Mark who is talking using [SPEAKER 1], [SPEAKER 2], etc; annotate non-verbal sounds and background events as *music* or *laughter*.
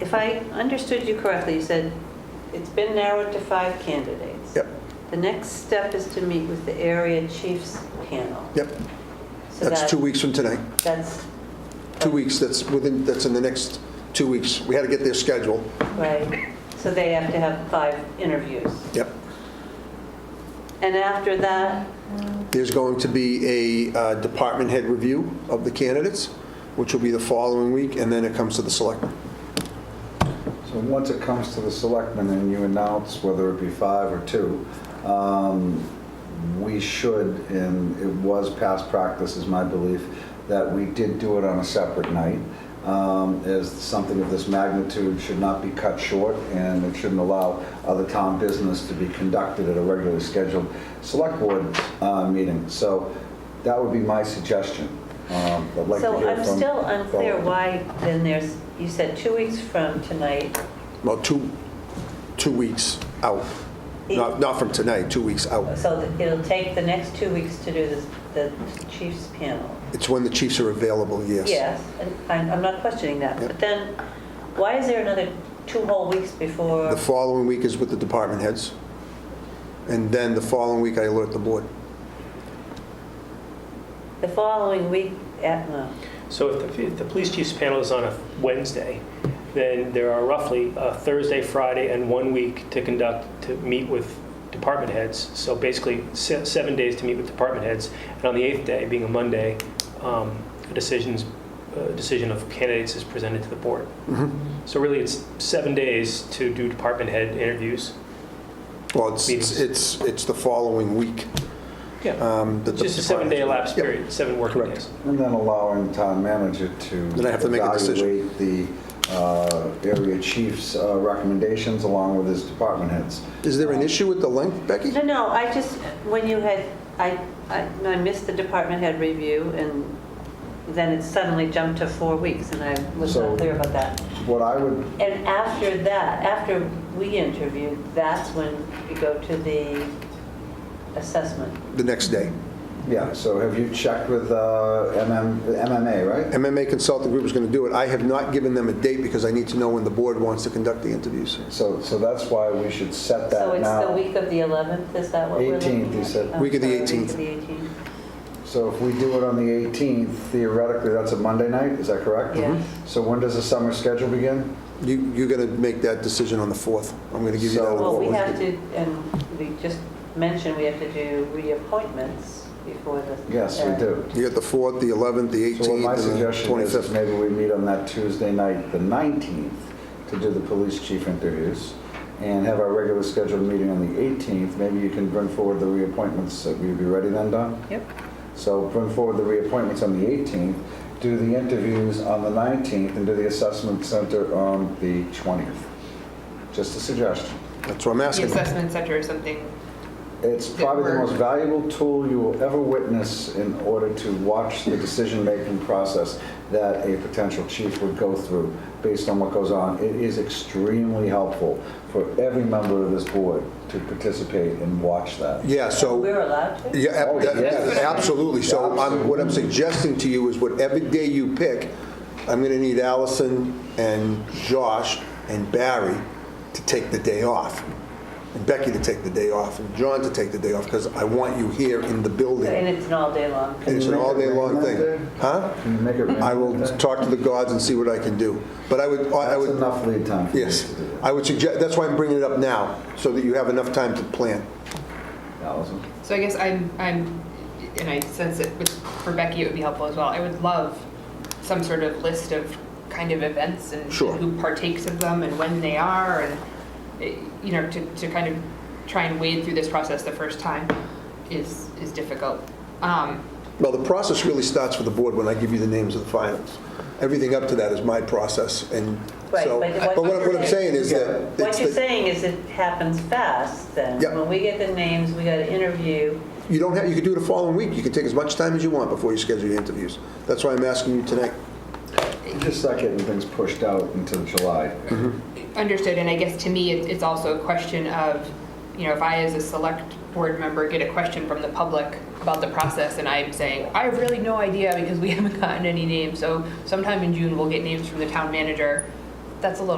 [SPEAKER 1] If I understood you correctly, you said it's been narrowed to five candidates.
[SPEAKER 2] Yep,
[SPEAKER 1] The next step is to meet with the area chiefs panel.
[SPEAKER 2] yep.
[SPEAKER 1] So
[SPEAKER 2] That's
[SPEAKER 1] that-
[SPEAKER 2] two weeks from today.
[SPEAKER 1] That's,
[SPEAKER 2] Two weeks, that's within, that's in the next two weeks. We had to get their schedule.
[SPEAKER 1] right, so they have to have five interviews.
[SPEAKER 2] Yep.
[SPEAKER 1] And after that,
[SPEAKER 2] There's going to be a uh, department head review of the candidates, which will be the following week, and then it comes to the selectmen.
[SPEAKER 3] So once it comes to the selectmen and you announce whether it be five or two, um, we should, and it was past practice, is my belief, that we did do it on a separate night, um, as something of this magnitude should not be cut short, and it shouldn't allow other town business to be conducted at a regularly scheduled select board uh, meeting. So that would be my suggestion. Um, I'd like to
[SPEAKER 1] so
[SPEAKER 3] hear
[SPEAKER 1] I'm
[SPEAKER 3] from-
[SPEAKER 1] still unclear why then there's, you said two weeks from tonight.
[SPEAKER 2] Well, two, two weeks out. Not, not from tonight, two weeks out.
[SPEAKER 1] So that it'll take the next two weeks to do this- the chiefs panel.
[SPEAKER 2] It's when the chiefs are available, yes.
[SPEAKER 1] Yes, and I'm I'm not questioning that.
[SPEAKER 2] Yep.
[SPEAKER 1] But then, why is there another two whole weeks before?
[SPEAKER 2] The following week is with the department heads, and then the following week I alert the board.
[SPEAKER 1] The following week, at, no.
[SPEAKER 4] So if the, if the police chief's panel is on a Wednesday, then there are roughly a Thursday, Friday, and one week to conduct, to meet with department heads. So basically, se- seven days to meet with department heads, and on the eighth day, being a Monday, um, a decisions, a decision of candidates is presented to the board.
[SPEAKER 2] Mm-hmm.
[SPEAKER 4] So really, it's seven days to do department head interviews.
[SPEAKER 2] Well, it's, it's,
[SPEAKER 4] Meetings.
[SPEAKER 2] it's it's the following week.
[SPEAKER 4] Yeah.
[SPEAKER 2] um, that the
[SPEAKER 4] Just a seven-day
[SPEAKER 2] department-
[SPEAKER 4] elapsed
[SPEAKER 2] Yep.
[SPEAKER 4] period, seven working
[SPEAKER 2] Correct.
[SPEAKER 4] days.
[SPEAKER 3] And then allowing the town manager to.
[SPEAKER 2] Then I have to make a decision.
[SPEAKER 3] Evaluate the uh, area chief's uh, recommendations along with his department heads.
[SPEAKER 2] Is there an issue with the length, Becky?
[SPEAKER 1] No, no, I just, when you had, I, I I missed the department head review, and then it suddenly jumped to four weeks, and I was
[SPEAKER 3] So-
[SPEAKER 1] not clear about that.
[SPEAKER 3] What I would,
[SPEAKER 1] And after that, after we interviewed, that's when we go to the assessment.
[SPEAKER 2] The next day.
[SPEAKER 3] yeah, so have you checked with uh, MM MMA, right?
[SPEAKER 2] MMA Consulting Group is going to do it. I have not given them a date because I need to know when the board wants to conduct the interviews.
[SPEAKER 3] So, so that's why we should set
[SPEAKER 1] So
[SPEAKER 3] that
[SPEAKER 1] it's the
[SPEAKER 3] now.
[SPEAKER 1] week of the 11th, is that what we're looking
[SPEAKER 3] 18th, you
[SPEAKER 1] at?
[SPEAKER 3] said.
[SPEAKER 1] I'm
[SPEAKER 2] Week of the
[SPEAKER 1] sorry, Week
[SPEAKER 2] 18th.
[SPEAKER 1] of the 18th,
[SPEAKER 3] So if we do it on the 18th, theoretically, that's a Monday night, is that correct?
[SPEAKER 1] Yes.
[SPEAKER 3] So when does the summer schedule begin?
[SPEAKER 2] You, you're going to make that decision on the 4th. I'm going to give you that.
[SPEAKER 3] So-
[SPEAKER 2] on the
[SPEAKER 1] Well, we
[SPEAKER 2] fourth.
[SPEAKER 1] have to, and we just mentioned we have to do reappointments before the.
[SPEAKER 3] Yes, we
[SPEAKER 1] uh,
[SPEAKER 3] do.
[SPEAKER 2] You got the 4th, the 11th, the
[SPEAKER 3] So what
[SPEAKER 2] 18th,
[SPEAKER 3] my
[SPEAKER 2] and the
[SPEAKER 3] suggestion is, is
[SPEAKER 2] 25th.
[SPEAKER 3] maybe we meet on that Tuesday night, the 19th, to do the police chief interviews, and have our regular scheduled meeting on the 18th. Maybe you can bring forward the reappointments, Uh, will you be ready then, Don?
[SPEAKER 1] Yep.
[SPEAKER 3] So bring forward the reappointments on the 18th, do the interviews on the 19th, and do the assessment center on the 20th. Just a suggestion.
[SPEAKER 2] That's what I'm
[SPEAKER 5] the
[SPEAKER 2] asking.
[SPEAKER 5] assessment center or something.
[SPEAKER 3] It's
[SPEAKER 5] that
[SPEAKER 3] probably the
[SPEAKER 5] work.
[SPEAKER 3] most valuable tool you will ever witness in order to watch the decision-making process that a potential chief would go through based on what goes on. It is extremely helpful for every member of this board to participate and watch that.
[SPEAKER 2] Yeah, so,
[SPEAKER 1] We're allowed to?
[SPEAKER 2] yeah, ab-
[SPEAKER 3] Oh,
[SPEAKER 2] that-
[SPEAKER 3] yes.
[SPEAKER 2] absolutely. So I'm, what I'm suggesting to you is whatever day you pick, I'm going to need Allison and Josh and Barry to take the day off. And Becky to take the day off, and John to take the day off, because I want you here in the
[SPEAKER 1] And
[SPEAKER 2] building.
[SPEAKER 1] it's an all-day-long.
[SPEAKER 3] you
[SPEAKER 2] It's an
[SPEAKER 3] make it
[SPEAKER 2] all-day-long
[SPEAKER 3] rain that day?
[SPEAKER 2] thing. Huh?
[SPEAKER 3] Can you make it rain?
[SPEAKER 2] I will
[SPEAKER 3] That's
[SPEAKER 2] talk to the gods and see what I can do. But I would, I would,
[SPEAKER 3] enough lead time for you to
[SPEAKER 2] yes,
[SPEAKER 3] do that.
[SPEAKER 2] I would suggest, that's why I'm bringing it up now, so that you have enough time to plan.
[SPEAKER 3] Allison?
[SPEAKER 5] So I guess I'm, I'm, and I sense it with, for Becky, it would be helpful as well. I would love some sort of list of kind of events and
[SPEAKER 2] Sure.
[SPEAKER 5] who partakes of them and when they are and, eh, you know, to, to kind of try and wade through this process the first time is, is difficult. Um,
[SPEAKER 2] Well, the process really starts for the board when I give you the names of the finals. Everything up to that is my process, and
[SPEAKER 1] Right,
[SPEAKER 2] so,
[SPEAKER 1] but what
[SPEAKER 2] but what what
[SPEAKER 1] you're
[SPEAKER 2] I'm saying is that.
[SPEAKER 1] What
[SPEAKER 2] it's
[SPEAKER 1] you're
[SPEAKER 2] the-
[SPEAKER 1] saying is it happens fast then.
[SPEAKER 2] Yeah.
[SPEAKER 1] When we get the names, we got to interview.
[SPEAKER 2] You don't have, you could do it the following week, you can take as much time as you want before you schedule your interviews. That's why I'm asking you tonight.
[SPEAKER 3] You Just start getting things pushed out until July.
[SPEAKER 5] Understood, and I guess to me, it- it's also a question of, you know, if I as a select board member get a question from the public about the process, and I'm saying, I have really no idea *laughs* because we haven't gotten any names, so sometime in June, we'll get names from the town manager, that's a little